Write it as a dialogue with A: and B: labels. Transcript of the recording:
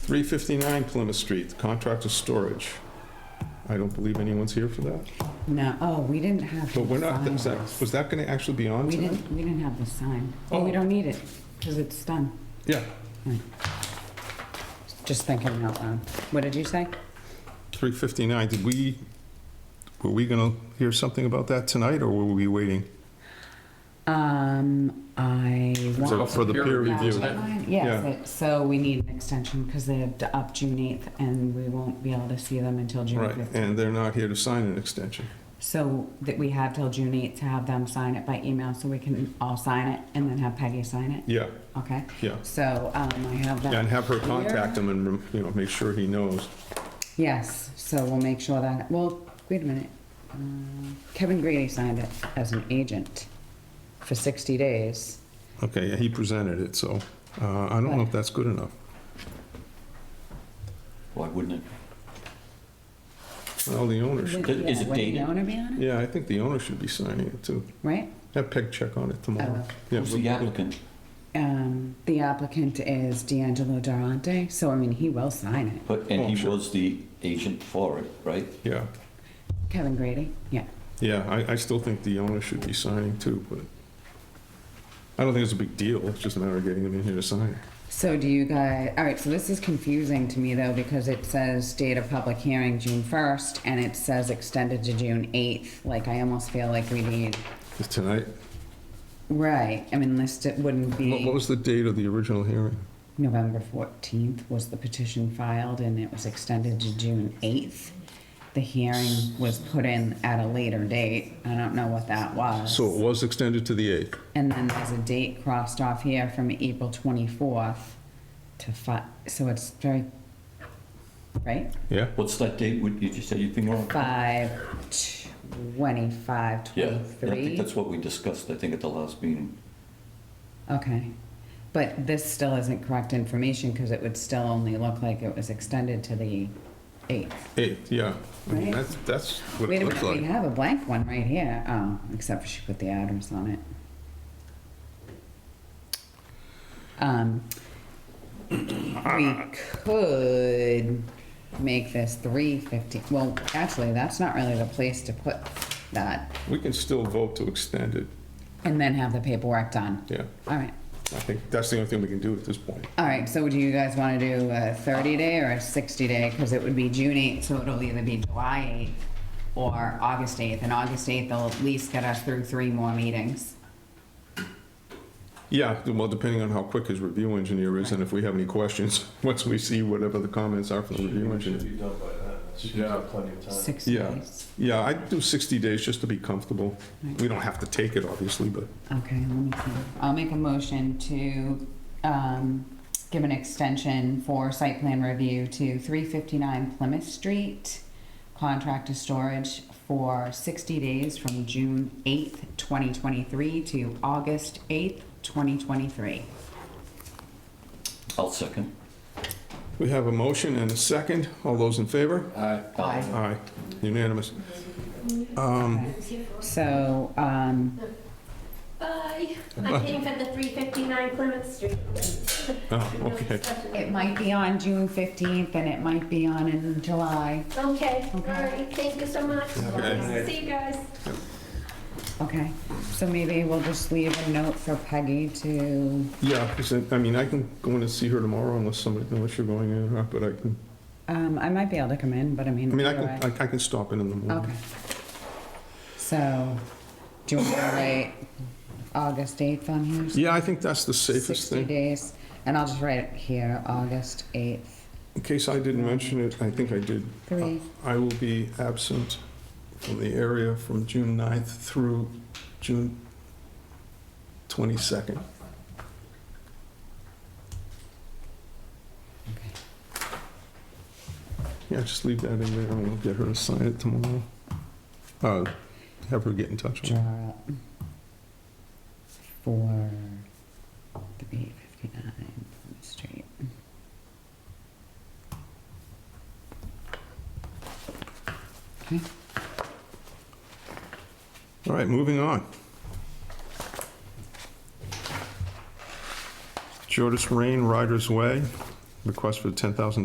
A: 359 Plymouth Street, contractor storage. I don't believe anyone's here for that,
B: No, oh, we didn't have.
A: but
B: the
A: we're not,
B: sign.
A: is that, was that gonna actually be on
B: We
A: tonight?
B: didn't, we didn't have the sign. Oh, we
A: Oh.
B: don't need it, because it's done.
A: Yeah,
B: Just thinking out loud. What did you say?
A: 359, did we, were we gonna hear something about that tonight, or were we waiting?
B: Um, I
A: For-
B: want.
A: For the peer review.
B: Yes, it- so we need an extension because they have to up June 8th and we won't be able to see them until June
A: Right,
B: 5th.
A: and they're not here to sign an extension.
B: So that we have till June 8th to have them sign it by email so we can all sign it and then have Peggy sign it,
A: Yeah,
B: okay?
A: yeah.
B: So, um, I have that.
A: Yeah, And have her contact him and, you know, make sure he knows.
B: Yes, so we'll make sure that, well, wait a minute. Uh, Kevin Grady signed it as an agent for 60 days.
A: Okay, yeah, he presented it, so uh, I don't know if that's good enough.
C: Why wouldn't
A: Well, the owner
B: Is
A: should,
C: is it
B: Would
C: dated?
B: the owner be on it,
A: yeah, I think the owner should be signing it too.
B: right?
A: Have Peg check on it
B: I
A: tomorrow.
B: will.
C: it?
A: Yeah,
C: Who's the applicant?
B: Um, The applicant is D'Angelo Durante, so I mean, he will sign it.
C: But,
A: Oh,
C: and he
A: sure.
C: was the agent for it, right?
A: Yeah,
B: Kevin Grady, yeah.
A: yeah, I, I still think the owner should be signing too, but I don't think it's a big deal, it's just a matter of getting him in here to sign.
B: So do you guys, all right, so this is confusing to me though, because it says date of public hearing, June 1st, and it says extended to June 8th. Like, I almost feel like we need,
A: Is tonight,
B: right, I mean, list it wouldn't be.
A: what what was the date of the original hearing?
B: November 14th was the petition filed, and it was extended to June 8th. The hearing was put in at a later date. I don't know what that was.
A: So it was extended to the 8th.
B: And then there's a date crossed off here from April 24th to 5, so it's very, right?
A: Yeah,
C: What's that date? Would you just say your finger on?
B: 5, 25,
C: Yeah, yeah, I think
B: 23?
C: that's what we discussed, I think, at the last meeting.
B: Okay. But this still isn't correct information, because it would still only look like it was extended to the 8th.
A: 8th, yeah. I mean,
B: Right.
A: that's, that's what
B: Wait
A: it
B: a
A: looks
B: minute, we
A: like.
B: have a blank one right here. Oh, except for she put the address on it. Um, we could make this three fifty, well, actually, that's not really the place to put that,
A: We can still vote to extend it,
B: and then have the paperwork done.
A: yeah.
B: All right,
A: I think that's the only thing we can do at this point.
B: all right, so do you guys wanna do a thirty day or a sixty day? Cause it would be June eighth, so it'll either be July eighth or August eighth, and August eighth will at least get us through three more meetings.
A: Yeah, well, depending on how quick his review engineer is and if we have any questions, once we see whatever the comments are from the review
D: Should
A: engineer.
D: be done by then. That should
A: Yeah.
D: give plenty of time.
B: Six
A: Yeah.
B: days.
A: Yeah, I'd do 60 days just to be comfortable. We don't have to take it, obviously, but
B: Okay, let me see. I'll make a motion to, um, give an extension for site plan review to three fifty-nine Plymouth Street. Contract to storage for sixty days from June eighth, twenty twenty-three to August eighth, twenty twenty-three.
C: I'll second.
A: we have a motion and a second. All those in favor?
D: Aye.
B: Aye.
A: Aye, unanimous. Um,
B: So, um,
E: Bye. I'm paying for the 359 Plymouth Street.
A: oh,
E: No
A: Okay,
E: discussion.
B: it might be on June fifteenth and it might be on in July.
E: Okay, all
B: Okay.
E: right, thank you so much.
A: Okay.
E: See you guys.
B: Okay, so maybe we'll just leave a note for Peggy to,
A: yeah, 'cause I I mean, I can go in and see her tomorrow unless somebody, unless you're going in or not, but I can,
B: um, I might be able to come in, but I mean.
A: I mean, I
B: otherwise-
A: can, I- I can stop in in the
B: Okay.
A: morning.
B: So, do you want to write August 8th on here?
A: Yeah, I think that's the safest
B: 60
A: thing.
B: days, and I'll just write it here, August 8th,
A: In case I didn't mention it, I think I did.
B: Three.
A: I will be absent from the area from June 9th through June 22nd. Yeah, just leave that in there and we'll get her to sign it tomorrow. Uh, Have her get in touch with
B: draw
A: me.
B: up for the 859 Plymouth Street.
A: All right, moving on. Jordis Rain Riders Way, request for $10,000